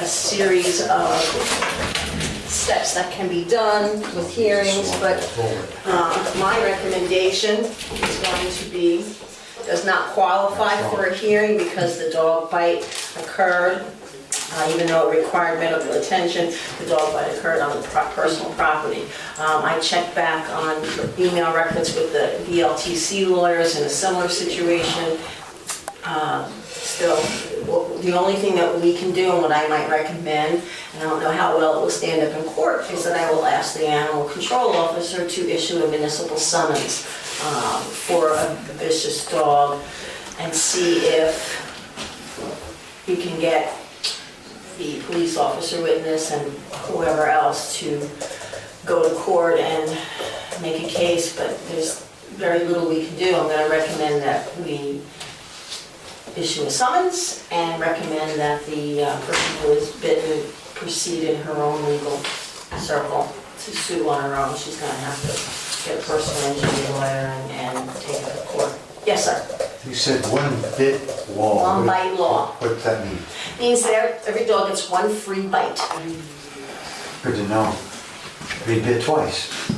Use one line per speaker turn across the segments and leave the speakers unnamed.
a series of steps that can be done with hearings, but uh, my recommendation is going to be, does not qualify for a hearing because the dog bite occurred, uh, even though it required medical attention, the dog bite occurred on the pro- personal property. Um, I checked back on email records with the VLTC lawyers in a similar situation. Um, Still, w- the only thing that we can do and what I might recommend, and I don't know how well it will stand up in court, is that I will ask the animal control officer to issue a municipal summons um, for a vicious dog and see if you can get the police officer witness and whoever else to go to court and make a case, but there's very little we can do. I'm gonna recommend that we issue a summons and recommend that the uh, person who is bitten proceed in her own legal circle to sue on her own. She's gonna have to get a personal injury lawyer and and take it to court. Yes, sir.
You said one bit law.
One bite law.
What's that mean?
Means that every dog gets one free bite.
Good to know. Been bit twice.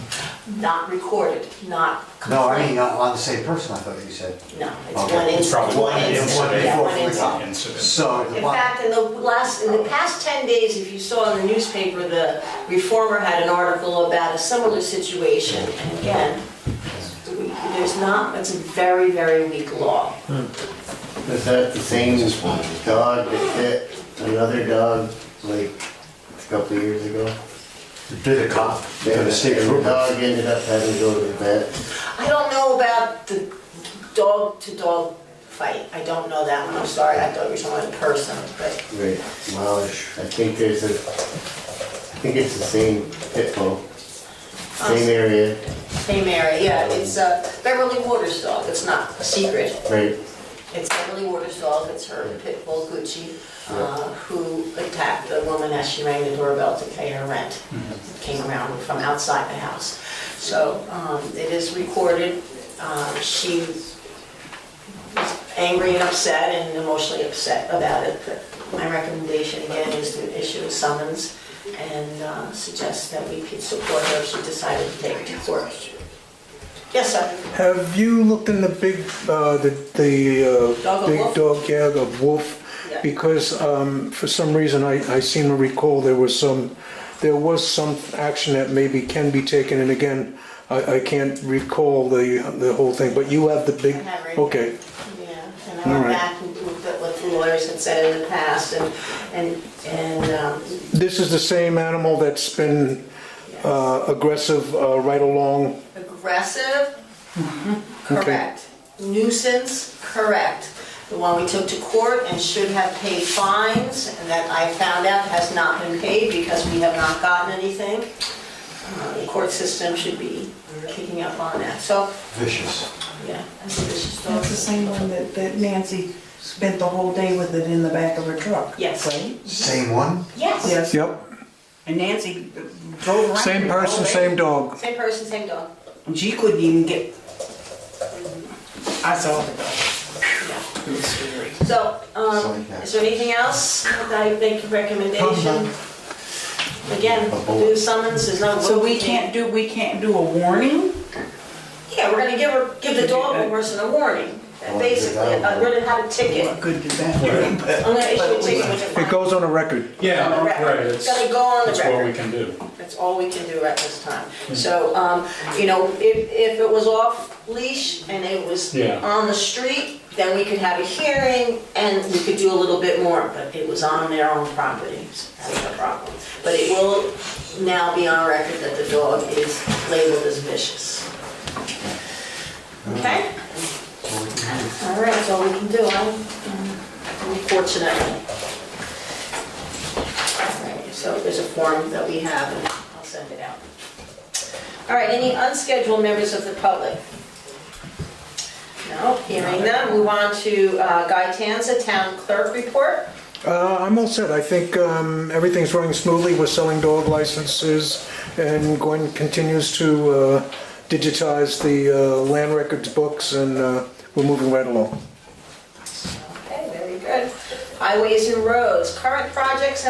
Not recorded, not
No, I
complained.
mean, on on the same person, I thought you said.
No, it's
Okay.
one
It's
incident.
probably one
incident.
yeah, one
Before we
incident.
incident.
So the
In
one-
fact, in the last, in the past 10 days, if you saw in the newspaper, the Reformer had an article about a similar situation. And again, there's not, it's a very, very weak law.
Was that the same dog that hit another dog like a couple of years ago?
bit a cop, bit a state
And the
trooper.
dog ended up having to go to the vet.
I don't know about the dog-to-dog fight. I don't know that one. I'm sorry, I thought you were talking about a person, but
Right. Well, I think there's a, I think it's the same pit bull, same area,
same area. Yeah, it's uh, Beverly Waters' dog. It's not a secret.
right?
It's Emily Waters' dog, it's her pit bull Gucci, uh, who attacked the woman as she rang the doorbell to pay her rent. Came around from outside the house. So um, it is recorded. Uh, She was angry and upset and emotionally upset about it. But My recommendation again is to issue a summons and uh, suggest that we could support her if she decided to take it to court. Yes, sir.
Have you looked in the big, uh, the, the,
Dog
uh,
of
big
Wolf?
dog, yeah, the wolf?
Yeah.
Because, um, for some reason, I, I seem to recall there was some, there was some action that maybe can be taken, and again, I, I can't recall the, the whole thing, but you have the big,
I have it right
okay.
Yeah, and I went
All right.
back and looked at what the lawyers had said in the past, and, and, and, um,
This is the same animal that's been, uh, aggressive, uh, right along,
aggressive,
mm-hmm. Okay.
correct. Nuisance, correct. The one we took to court and should have paid fines, and that I found out has not been paid because we have not gotten anything. Uh, The court system should be kicking up on that, so,
Vicious.
yeah, I think this is.
That's the same one that, that Nancy spent the whole day with it in the back of her truck.
Yes.
Right?
Same one?
Yes.
Yes,
yep,
and Nancy drove around.
same
the whole
person,
day,
same dog.
Same person, same dog.
And she couldn't even get, I saw the dog.
Yeah.
It was scary.
So, um,
Sorry, yeah.
is there anything else that I make a recommendation? Again,
A bullet.
do summons, there's no.
So we can't do, we can't do a warning?
Yeah, we're gonna give her, give the dog person a warning,
Well,
basically,
good.
I'm gonna have a ticket.
What good did that do?
I'm gonna issue a ticket with a
It
fine.
goes on a record.
Yeah, right,
It's
it's,
gotta go on the
that's what we
record,
can do.
that's all we can do at this time. So, um, you know, if, if it was off leash and it was
Yeah.
on the street, then we could have a hearing and we could do a little bit more, but it was on their own property, so that's the problem. But it will now be on record that the dog is labeled as vicious. Okay? All right, that's all we can do, I'm I'm fortunate. All right, So there's a form that we have, and I'll send it out. All right, any unscheduled members of the public? No, hearing none, move on to uh, Guy Tanza, Town Clerk Report.
Uh, I'm all set. I think um, everything's running smoothly. We're selling dog licenses, and Gwen continues to uh, digitize the uh, land records books, and uh, we're moving right along.
Okay, very good. Highways and Roads, current projects